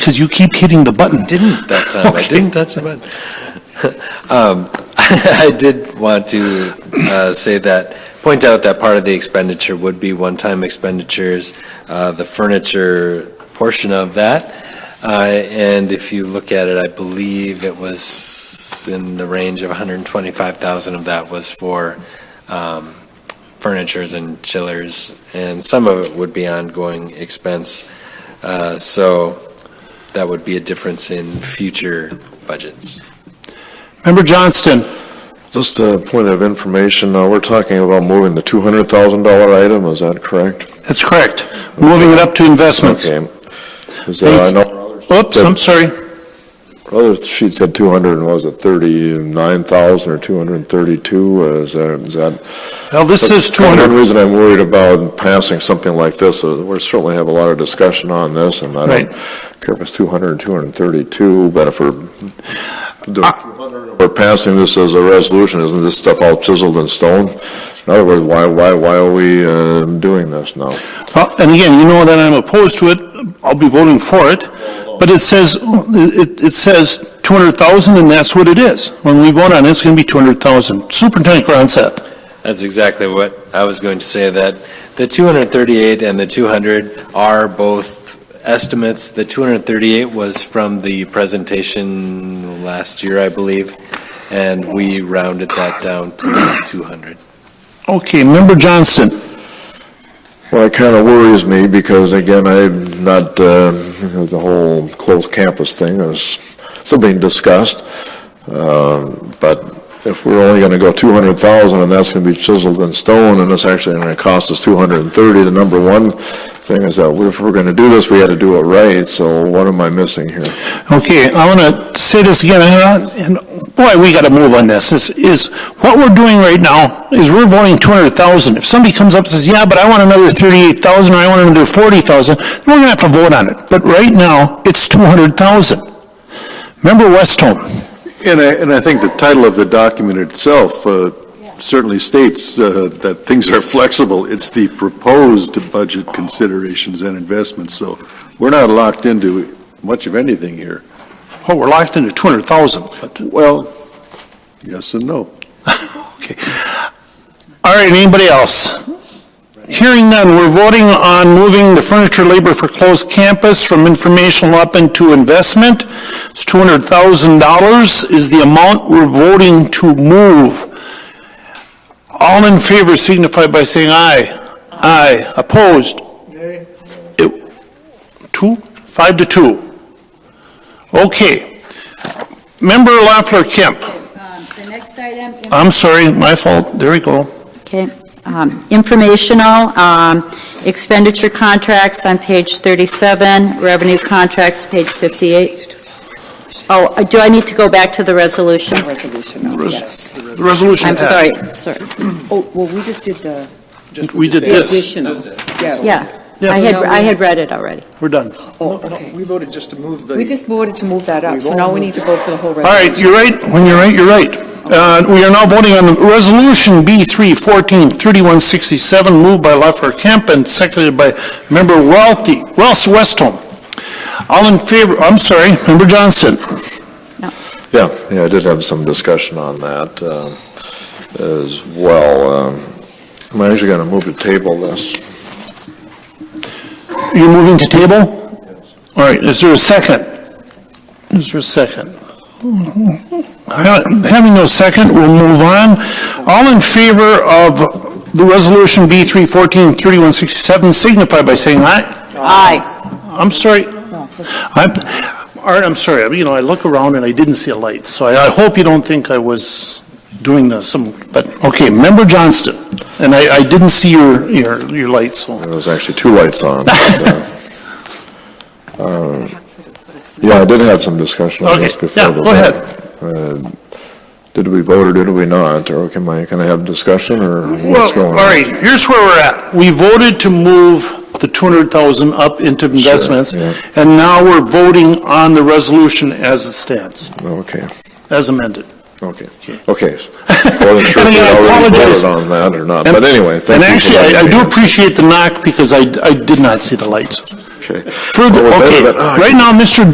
because you keep hitting the button. Didn't that time, I Okay. didn't touch the button. Um, I did want to uh, say that, point out that part of the expenditure would be one-time expenditures, uh, the furniture portion of that. Uh, And if you look at it, I believe it was in the range of 125,000 of that was for um, furnitures and chillers, and some of it would be ongoing expense. Uh, So that would be a difference in future budgets. Member Johnston, Just a point of information, uh, we're talking about moving the $200,000 item, is that correct? that's correct. Moving it up to investments. Okay. 'Cause, uh, I know Oops, I'm sorry. other sheet said 200, and what was it 39,000 or 232, uh, is that, is that? Well, this is The 200. only reason I'm worried about passing something like this is we certainly have a lot of discussion on this, and I Right. don't care if it's 200 or 232, but if we're Uh, doing Ah. 200, if we're passing this as a resolution, isn't this stuff all chiseled in stone? In other words, why, why, why are we uh, doing this now? Well, And again, you know that I'm opposed to it, I'll be voting for it, but it says, it, it says 200,000, and that's what it is. When we vote on it, it's going to be 200,000. Superintendent Gronseth, That's exactly what I was going to say, that the 238 and the 200 are both estimates. The 238 was from the presentation last year, I believe, and we rounded that down to 200. okay, Member Johnston, Well, it kind of worries me because again, I'm not, uh, the whole closed campus thing is still being discussed. Um, But if we're only going to go 200,000 and that's going to be chiseled in stone and it's actually going to cost us 230, the number one thing is that if we're going to do this, we had to do it right. So what am I missing here? Okay, I want to say this again, and I- and boy, we got to move on this. This is, what we're doing right now is we're voting 200,000. If somebody comes up and says, yeah, but I want another 38,000, or I want another 40,000, then we're going to have to vote on it. But right now, it's 200,000. Member Westholm? And I, and I think the title of the document itself uh, certainly states uh, that things are flexible. It's the proposed budget considerations and investments, so we're not locked into much of anything here. Oh, we're locked into 200,000, but, Well, yes and no. okay. All right, anybody else? Hearing none, we're voting on moving the furniture labor for closed campus from informational up into investment. It's $200,000 is the amount we're voting to move. All in favor signify by saying aye. Aye. Opposed? Nay. Two, five to two. Okay. Member Lafleur Kemp. Um, The next item, in- I'm sorry, my fault. There we go. okay, um, informational um, expenditure contracts on page 37, revenue contracts, page 58. Oh, uh, do I need to go back to the resolution? Resolution, yes. The resolution I'm passed. sorry, sorry, Oh, well, we just did the We did this. additional. yeah. Yeah. I had, I had read it already. We're done. Oh, okay. We voted just to move the. We just voted to move that up, We've so now we only- need to vote for the whole All right, resolution. you're right. When you're right, you're right. Uh, We are now voting on Resolution B3, 14, 3167, moved by Leffler Kemp and seconded by Member Welty, Wells Westholm. All in favor, I'm sorry, Member Johnston. Yeah, yeah, I did have some discussion on that um, as well. Um, I'm actually going to move to table this. You're moving to table? All right, is there a second? Is there a second? Ha- Having no second, we'll move on. All in favor of the resolution B three fourteen thirty-one sixty-seven signify by saying aye. Aye. I'm sorry. I'm, Art, I'm sorry, you know, I look around and I didn't see a light, so I, I hope you don't think I was doing this, some- but, okay, Member Johnston, and I, I didn't see your, your, your light, so. There was actually two lights on. but, uh, Yeah, I did have some discussion on this Okay, before. yeah, the go ahead. vote. Uh, Did we vote or did we not? Or can I, can I have discussion or what's Well, going all on? right, here's where we're at. We voted to move the 200,000 up into investments, yeah. and now we're voting on the resolution as it stands, Okay, as amended. okay, okay. Wasn't And sure if we again, I already apologize. voted on that or not, Uh, but anyway, thank And you. for actually, I I letting me do know. appreciate the knock because I I did not see the lights. Okay. Further, Oh, Well, ah, okay, better than- right now, Mr.